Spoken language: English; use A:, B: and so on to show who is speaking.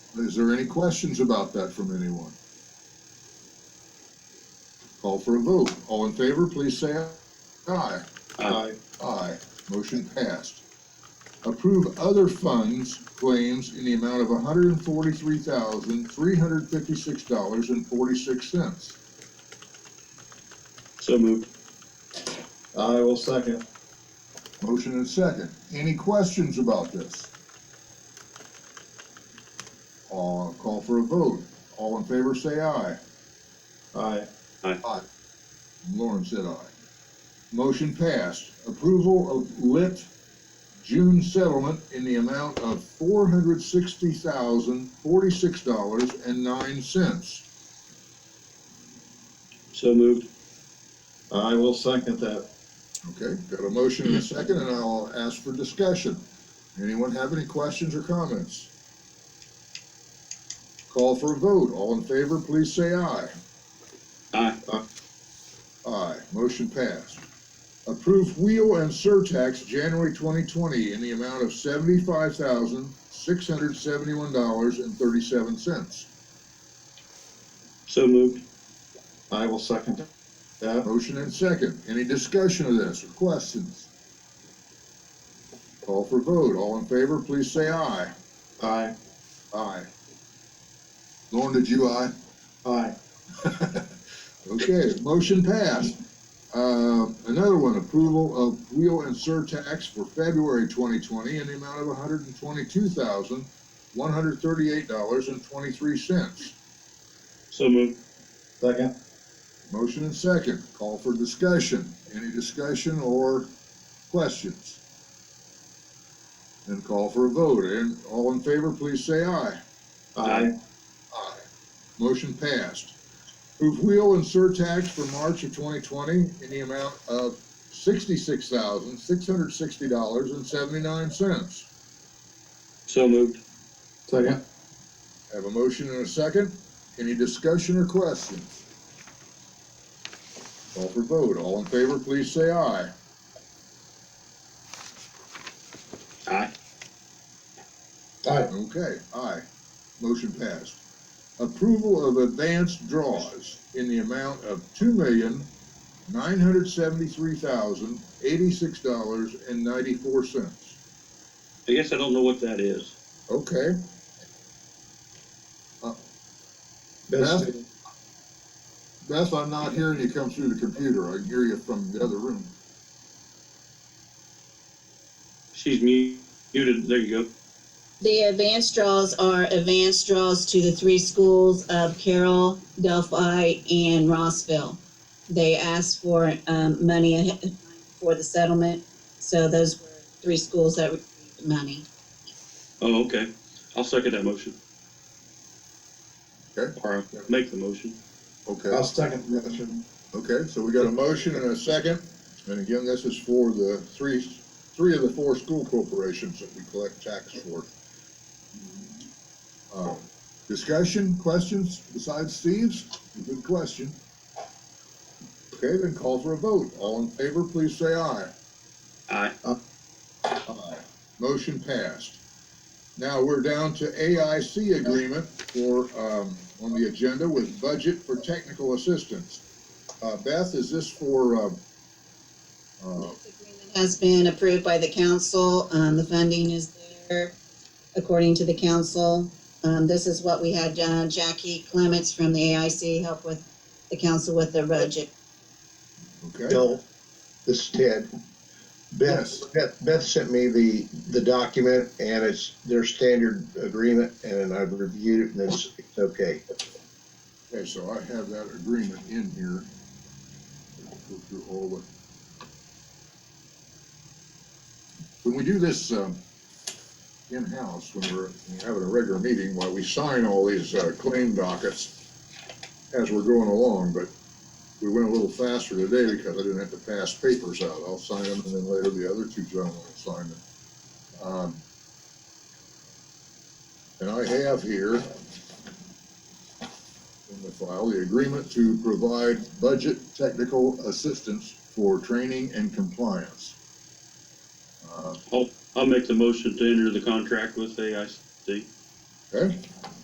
A: Is there any questions about that from anyone? Call for a vote. All in favor, please say aye.
B: Aye.
A: Aye. Motion passed. Approve other funds claims in the amount of hundred and forty-three thousand, three hundred fifty-six dollars and forty-six cents.
B: So moved.
C: I will second.
A: Motion and second. Any questions about this? Uh, call for a vote. All in favor, say aye.
C: Aye.
A: Lauren said aye. Motion passed. Approval of lit June settlement in the amount of four hundred sixty thousand, forty-six dollars and nine cents.
B: So moved.
C: I will second that.
A: Okay, got a motion and a second, and I'll ask for discussion. Anyone have any questions or comments? Call for a vote. All in favor, please say aye.
B: Aye.
A: Aye, motion passed. Approve wheel and surtax January twenty twenty in the amount of seventy-five thousand, six hundred seventy-one dollars and thirty-seven cents.
B: So moved.
C: I will second that.
A: Motion and second. Any discussion of this or questions? Call for vote. All in favor, please say aye.
C: Aye.
A: Aye. Lauren, did you aye?
C: Aye.
A: Okay, motion passed. Uh, another one, approval of wheel and surtax for February twenty twenty in the amount of hundred and twenty-two thousand, one hundred thirty-eight dollars and twenty-three cents.
B: So moved.
C: Second.
A: Motion and second, call for discussion. Any discussion or questions? Then call for a vote, and all in favor, please say aye.
C: Aye.
A: Aye. Motion passed. Approve wheel and surtax for March of twenty twenty in the amount of sixty-six thousand, six hundred sixty dollars and seventy-nine cents.
B: So moved.
C: Second.
A: Have a motion and a second. Any discussion or questions? Call for vote. All in favor, please say aye.
B: Aye.
C: Aye.
A: Okay, aye. Motion passed. Approval of advanced draws in the amount of two million, nine hundred seventy-three thousand, eighty-six dollars and ninety-four cents.
B: I guess I don't know what that is.
A: Okay,
C: Best-
A: Beth, I'm not hearing you come through the computer. I can hear you from the other room.
B: She's mu- muted. There you go.
D: The advanced draws are advanced draws to the three schools of Carroll, Delphi, and Rossville. They asked for um, money ahead- for the settlement, so those were three schools that received money.
B: Oh, okay. I'll second that motion.
A: Okay.
B: Or make the motion.
A: Okay,
C: I'll second the motion.
A: okay, so we got a motion and a second. And again, this is for the three, three of the four school corporations that we collect tax for. Uh, Discussion, questions besides Steve's? Good question. Okay, then call for a vote. All in favor, please say aye. Uh,
B: Aye.
A: Aye. Motion passed. Now we're down to AIC agreement for, um, on the agenda with budget for technical assistance. Uh, Beth, is this for, um, uh,
D: This agreement Has been approved by the council, um, the funding is there according to the council. Um, this is what we had uh, Jackie Clements from the AIC help with the council with the budget.
A: okay,
E: Bill, this is Ted.
A: Yes.
E: Beth, Beth, Beth sent me the, the document and it's their standard agreement and I've reviewed it and it's, it's okay.
A: okay, so I have that agreement in here. Go through all the. When we do this, um, in-house, when we're having a regular meeting, while we sign all these, uh, claim dockets as we're going along, but we went a little faster today because I didn't have to pass papers out. I'll sign them and then later the other two gentlemen will sign them. Um, And I have here in the file, the agreement to provide budget technical assistance for training and compliance. Uh,
B: I'll, I'll make the motion to enter the contract with AIC.
A: Okay,